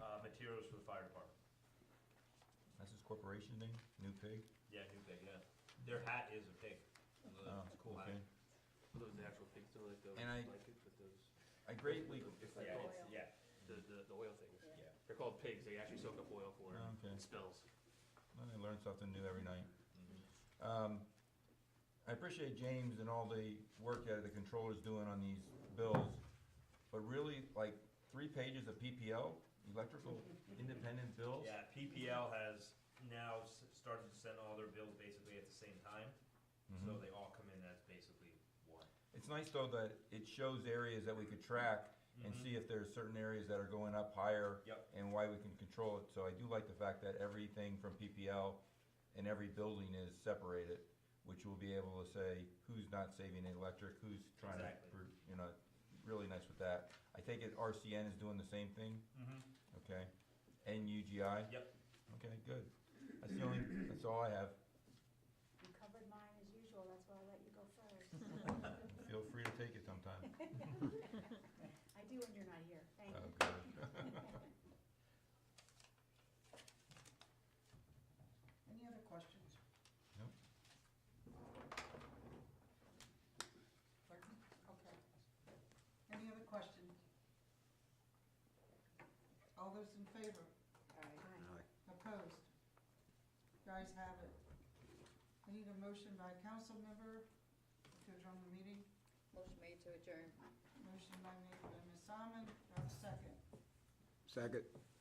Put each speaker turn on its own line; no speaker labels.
Uh,
corporation thing, new pig?
Yeah, new pig, yeah. Their hat is a pig.
Oh,
It's
cool,
black.
okay.
Those natural pigs don't like those
And I-
blankets with those.
I greatly,
It's like
Yeah,
oil.
it's, yeah,
the, the, the oil things.
yeah.
They're called pigs. They actually soak up oil for
Oh, okay.
it. It spills.
I learn something new every night.
Mhm.
Um, I appreciate James and all the work that the controller's doing on these bills, but really, like, three pages of PPL, electrical independent bills?
Yeah, PPL has now s- started to send all their bills basically at the same time, so
Mhm.
they all come in as basically one.
It's nice, though, that it shows areas that we could track and
Mhm.
see if there's certain areas that are going up higher.
Yep.
And why we can control it, so I do like the fact that everything from PPL and every building is separated, which will be able to say who's not saving any electric, who's trying to,
Exactly.
pr- you know, really nice with that. I take it RCN is doing the same thing,
Mm-hmm.
okay, and UGI?
Yep.
Okay, good, that's the only, that's all I have,
You covered mine as usual, that's why I let you go first.
feel free to take it sometime.
I do when you're not here, thank you.
Oh, God.
Any other questions?
Nope.
Pardon? Okay. Any other questions? All those in favor?
Aye.
Opposed? You Guys have it. I need a motion by a council member to adjourn the meeting.
Motion made to adjourn.
Motion by me, by Ms. Almond, do I have a second?
Second.